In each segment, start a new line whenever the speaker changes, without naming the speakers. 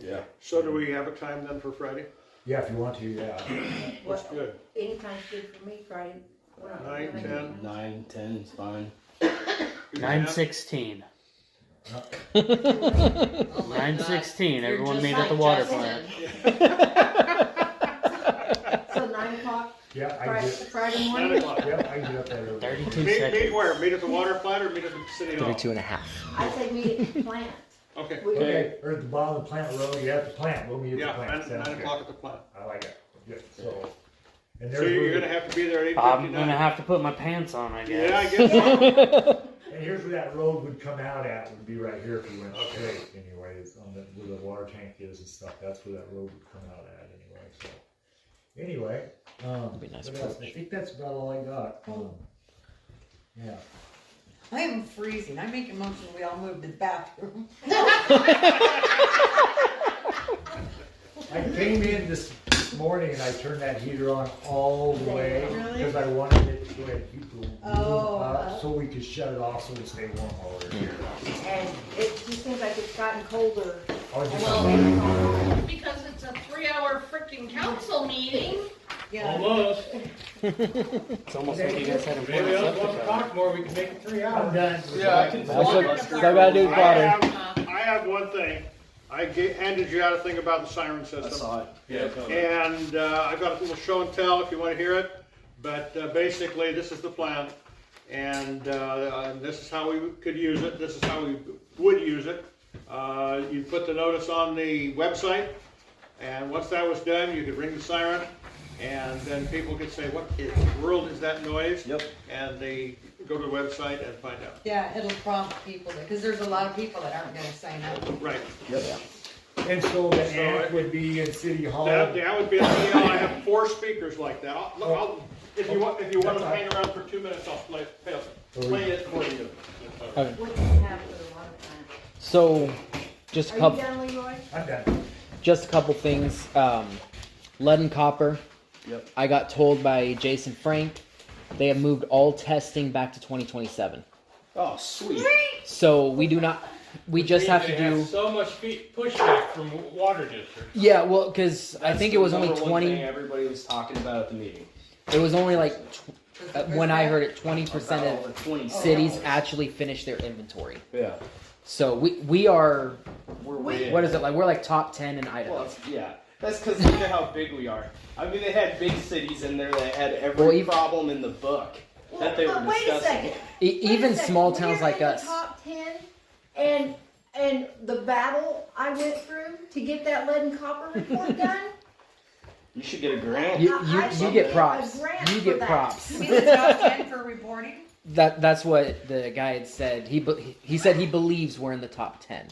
yeah.
So do we have a time then for Friday?
Yeah, if you want to, yeah.
That's
Well,
good.
anytime's good for me, Friday. We're not
Nine,
doing
ten.
it.
Nine, ten is fine.
You
Nine
can-
sixteen.
Oh my
Nine
God.
sixteen.
You're
Everyone
just
meet
like
at the water
Justin.
plant.
So nine o'clock,
Yeah, I can
Friday,
get,
Friday
Nine
morning?
o'clock.
yeah, I can get up that early.
Thirty-two
Meet, meet
seconds.
where? Meet at the water plant or meet at the city hall?
Thirty-two and a half.
I say meet at the plant.
Okay.
We-
Okay, or at the bottom of the plant road, yeah, at the plant, we'll meet
Yeah,
at the plant,
nine,
sounds
nine
good.
o'clock at the plant.
I like it, good, so. And
So you're
there's,
gonna have to be there at eight
I'm gonna
fifty-nine.
have to put my pants on, I guess.
Yeah, I guess so.
and here's where that road would come out at, would be right here if you went
Okay.
straight anyway, it's on the, where the water tank is and stuff, that's where that road would come out at anyway, so. Anyway, um,
That'd be a nice
what else? I
approach.
think that's about all I got, um, yeah.
I am freezing. I make a motion we all move to the bathroom.
I came in this morning and I turned that heater on all the way
Really?
because I wanted it to go ahead and keep the room
Oh,
up so we could shut it off so it stayed warm all over here.
Mm.
And it just seems like it's gotten colder.
I was just-
Well, because it's a three-hour freaking council meeting.
Yeah.
Almost.
It's almost like you guys had a
Maybe
pants
I'll
up to
talk
cover.
talk more, we can make it three
I'm
hours.
done.
Yeah, I can-
That's
Water
what, that's what I gotta do
I
is water.
have, I have one thing. I ga- handed you out a thing about the siren
I
system.
saw it. Yeah.
And uh, I've got a little show and tell if you want to hear it, but uh, basically, this is the plan. And uh, and this is how we could use it, this is how we would use it. Uh, You put the notice on the website, and once that was done, you could ring the siren, and then people could say, what in the world is that noise?
Yep.
And they go to the website and find out.
Yeah, it'll prompt people because there's a lot of people that aren't gonna sign up.
Right,
Yep.
And so the
So
amp
it-
would be in City Hall.
that that would be, an ideal. I have four speakers like that. I'll- look, I'll- If you want, if you want to hang around for two minutes, I'll play, play it for you.
What do you have for the water plant?
So, just a
Are you
couple,
done, Leroy?
I'm done.
just a couple things. Um, lead and copper.
Yep.
I got told by Jason Frank they have moved all testing back to 2027.
Oh, sweet.
So we do not. We
means
just have to
they
do.
so much fe- pushback from w- water districts.
Yeah, well, because I think it was only
Number one
20.
thing Everybody was talking about at the meeting.
It was only like tw- uh, when I heard it, 20%
About
of
the Twenty
cities
hours.
actually finished their inventory.
Yeah.
So we we are.
We're way.
What is it like? We're like top 10 in Idaho.
Well, it's- yeah. That's because look at how big we are. I mean, they had big cities in there that had every
Well, you-
problem in the book that they were
But wait a
discussing.
second.
E-
Wait a
even
second,
small
we
towns
are in
like
the
us.
top ten, and and the battle I went through to get that lead and copper report done.
You should get a grant.
You,
I-
you,
I
you
should
get
get
props.
a grant
You
for
get
that.
props.
Is it top ten for reporting?
That that's what the guy had said. He be- he said he believes we're in the top ten.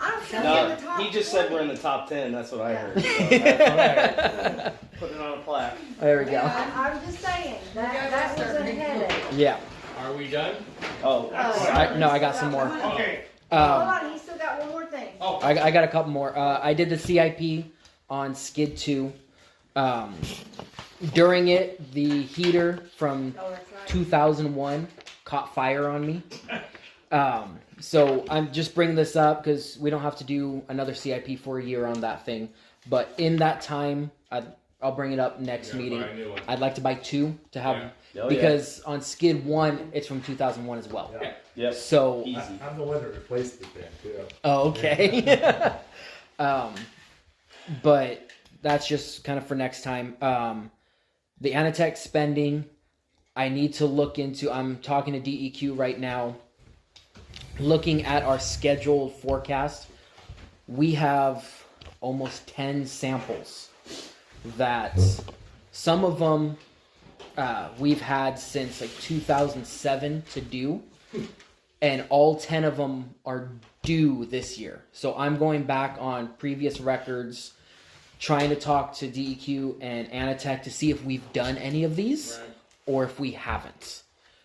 I don't think we're
No,
in the top.
he just said
40.
we're in the top ten. That's what I
Yeah.
heard. So that's- Put it on a plaque.
Oh, There we go.
Um,
I- I'm just saying that that was a headache.
Yeah.
Are we done?
Oh,
Uh,
I, no, I got some more. Um,
Okay,
I,
Hold on, he's still got one more thing.
I got a couple more. Uh, I did the CIP on Skid Two. Um, during it, the heater from
Oh, that's right.
2001 caught fire on me. Um, so I'm just bringing this up because we don't have to do another CIP for a year on that thing. But in that time, I, I'll bring it up next
Yeah,
meeting.
buy a new one.
I'd like to buy two to have
Yeah.
Oh, yeah.
because on Skid One, it's from 2001 as well.
Yeah.
yep.
So,
Easy.
I- I'm the one that replaced it then, too.
oh, okay. um, but that's just kind of for next time. Um, the Anatech spending, I need to look into. I'm talking to DEQ right now, looking at our scheduled forecast. We have almost 10 samples that some of them uh, we've had since like 2007 to do, and all 10 of them are due this year. So I'm going back on previous records, trying to talk to DEQ and Anatech to see if we've done any of these or if we haven't.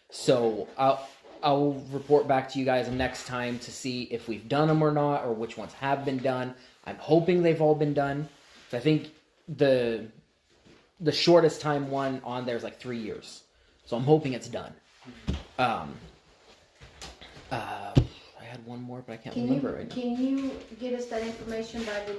So I'll, I'll report back to you guys next time to see if we've done them or not, or which ones have been done. I'm hoping they've all been done. 'Cause I think the the shortest time one on there is like three years, so I'm hoping it's done. Um, uh, I had one more, but I can't
Can
remember
you
right now.
can you get us that information by the